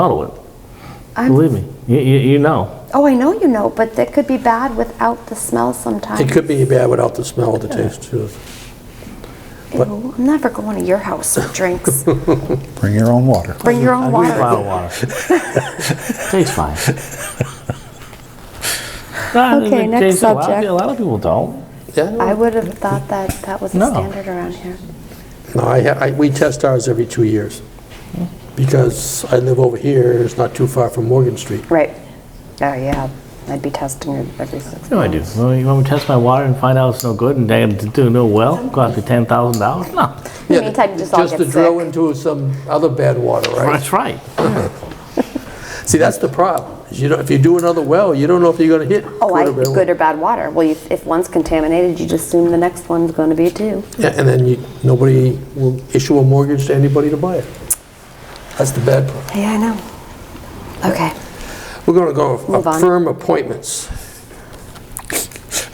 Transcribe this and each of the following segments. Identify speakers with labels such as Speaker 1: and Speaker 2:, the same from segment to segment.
Speaker 1: model it.
Speaker 2: I'm-
Speaker 1: Believe me, you, you, you know.
Speaker 2: Oh, I know you know, but that could be bad without the smell sometimes.
Speaker 3: It could be bad without the smell or the taste, too.
Speaker 2: Ew, I'm never going to your house for drinks.
Speaker 4: Bring your own water.
Speaker 2: Bring your own
Speaker 1: We bottle
Speaker 2: water.
Speaker 1: water. Tastes fine.
Speaker 2: Okay, next
Speaker 1: Tastes- a lot of
Speaker 2: subject.
Speaker 1: pe- A lot of people don't.
Speaker 2: I
Speaker 3: Yeah,
Speaker 2: would have thought that that was the
Speaker 1: No.
Speaker 2: standard around here.
Speaker 3: no, I, ha- I- we test ours every two years, because I live over here, it's not too far from Morgan Street.
Speaker 2: Right. Oh, yeah. I'd be testing it every six
Speaker 1: No, I do.
Speaker 2: months.
Speaker 1: Well, You want me to test my water and find out it's no good and damn, to do no well? Cost me ten thousand dollars? No,
Speaker 2: In the meantime, you just all get
Speaker 3: to drill
Speaker 2: sick.
Speaker 3: into some other bad water, right?
Speaker 1: that's right.
Speaker 3: See, that's the problem, is you don't, if you do another well, you don't know if you're gonna hit.
Speaker 2: Oh, I,
Speaker 3: good or bad
Speaker 2: good or bad water. Well, you- if one's contaminated, you just assume the next one's going to be too.
Speaker 3: Yeah, And then you, nobody will issue a mortgage to anybody to buy it. That's the bad part.
Speaker 2: Yeah, I know. Okay.
Speaker 3: We're gonna go
Speaker 2: Move on.
Speaker 3: firm appointments.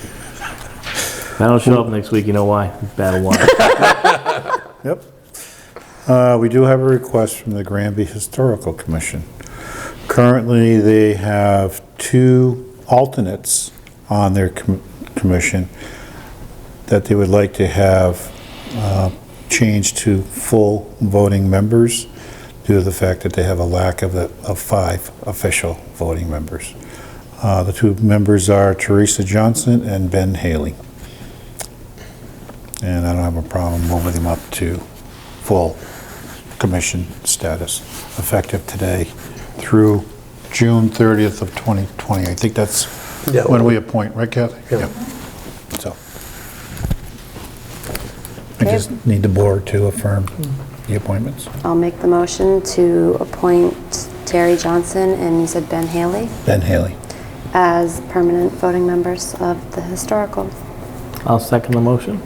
Speaker 1: If I don't show up next week, you know why? Bad water.
Speaker 4: Yep. Uh, We do have a request from the Granby Historical Commission. Currently, they have two alternates on their com- commission that they would like to have uh, changed to full voting members due to the fact that they have a lack of the- of five official voting members. Uh, The two members are Teresa Johnson and Ben Haley. And I don't have a problem moving them up to full commission status, effective today through June 30th of 2020. I think that's
Speaker 3: Yeah.
Speaker 4: when we appoint, right Kathy?
Speaker 3: Yeah.
Speaker 4: Yep. So. I just need the board to affirm the appointments.
Speaker 2: I'll make the motion to appoint Terry Johnson and you said Ben Haley
Speaker 4: Ben Haley.
Speaker 2: as permanent voting members of the historical.
Speaker 1: I'll second the motion.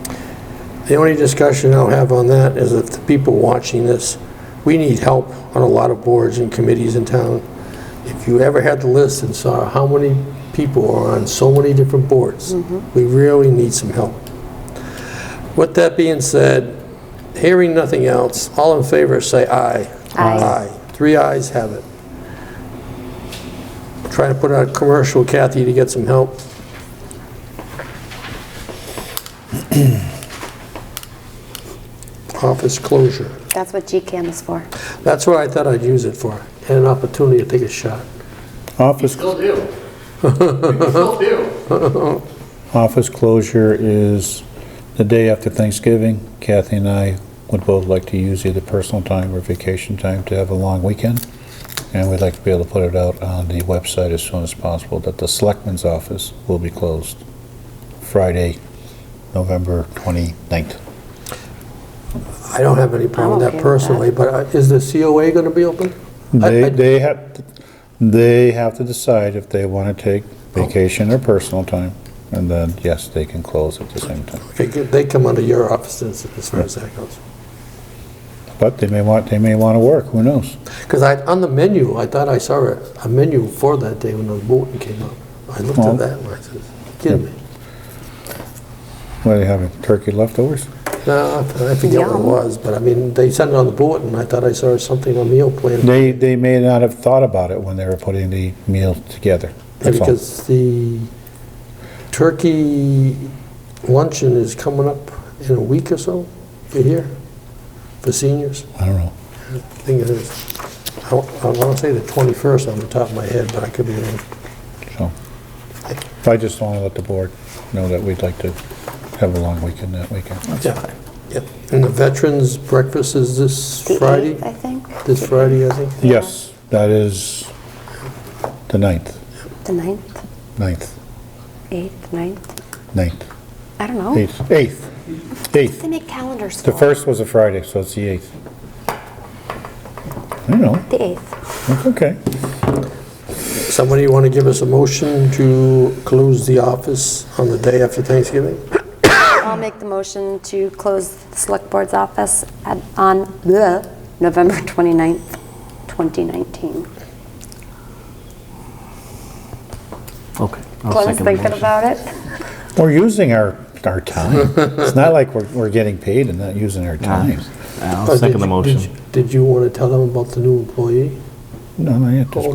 Speaker 3: The only discussion I'll have on that is if the people watching this, we need help on a lot of boards and committees in town. If you ever had the list and saw how many people are on so many different boards, we really need some help. With that being said, hearing nothing else, all in favor, say aye.
Speaker 2: Aye.
Speaker 3: Three ayes have it. Try to put out a commercial, Kathy, to get some help. Office closure.
Speaker 2: That's what GCAM is for.
Speaker 3: That's what I thought I'd use it for, and an opportunity to take a shot.
Speaker 4: Office,
Speaker 5: Still do. Still do.
Speaker 4: office closure is the day after Thanksgiving. Kathy and I would both like to use either personal time or vacation time to have a long weekend. And we'd like to be able to put it out on the website as soon as possible that the selectman's office will be closed Friday, November 29th.
Speaker 3: I don't have any problem
Speaker 2: I'm okay with
Speaker 3: with that
Speaker 2: that.
Speaker 3: personally, but uh, is the COA going to be open? I- I-
Speaker 4: They, they have, they have to decide if they want to take vacation or personal time, and then, yes, they can close at the same time.
Speaker 3: Okay, good, they come under your office as as far as that goes.
Speaker 4: But they may want, they may want to work, who knows?
Speaker 3: Because I, on the menu, I thought I saw a, a menu for that day when the bulletin came up. I looked
Speaker 4: Oh.
Speaker 3: at that and I said, kidding me?
Speaker 4: What, they having turkey leftovers?
Speaker 3: No, I forget what it
Speaker 2: Yum.
Speaker 3: was, but I mean, they sent it on the bulletin, I thought I saw something on meal plan.
Speaker 4: They, they may not have thought about it when they were putting the meal together. That's all.
Speaker 3: Because the turkey luncheon is coming up in a week or so, you hear, for seniors.
Speaker 4: I don't know.
Speaker 3: I think it is, I want to say the 21st on the top of my head, but I could be wrong.
Speaker 4: So, I just want to let the board know that we'd like to have a long weekend that weekend.
Speaker 3: Yeah, yeah. And the veterans breakfast is this
Speaker 2: The
Speaker 3: Friday?
Speaker 2: 8th, I think.
Speaker 3: This Friday, I think?
Speaker 4: Yes, that is the ninth,
Speaker 2: The 9th,
Speaker 4: ninth,
Speaker 2: 8th, 9th.
Speaker 4: ninth,
Speaker 2: I don't know.
Speaker 4: eighth, eighth, eighth.
Speaker 2: They make calendars
Speaker 4: The
Speaker 2: for.
Speaker 4: first was a Friday, so it's the eighth. I don't know,
Speaker 2: The 8th.
Speaker 4: that's okay.
Speaker 3: Somebody want to give us a motion to close the office on the day after Thanksgiving?
Speaker 2: I'll make the motion to close the Select Board's office at- on the November 29th, 2019.
Speaker 1: Okay. I'll
Speaker 2: Glenn's
Speaker 1: second the
Speaker 2: thinking
Speaker 1: motion.
Speaker 2: about it.
Speaker 4: We're using our, our time. It's not like we're, we're getting paid and not using our time.
Speaker 1: I'll second the
Speaker 3: Did you-
Speaker 1: motion.
Speaker 3: Did you want to tell them about the new employee?
Speaker 4: No, no, you have to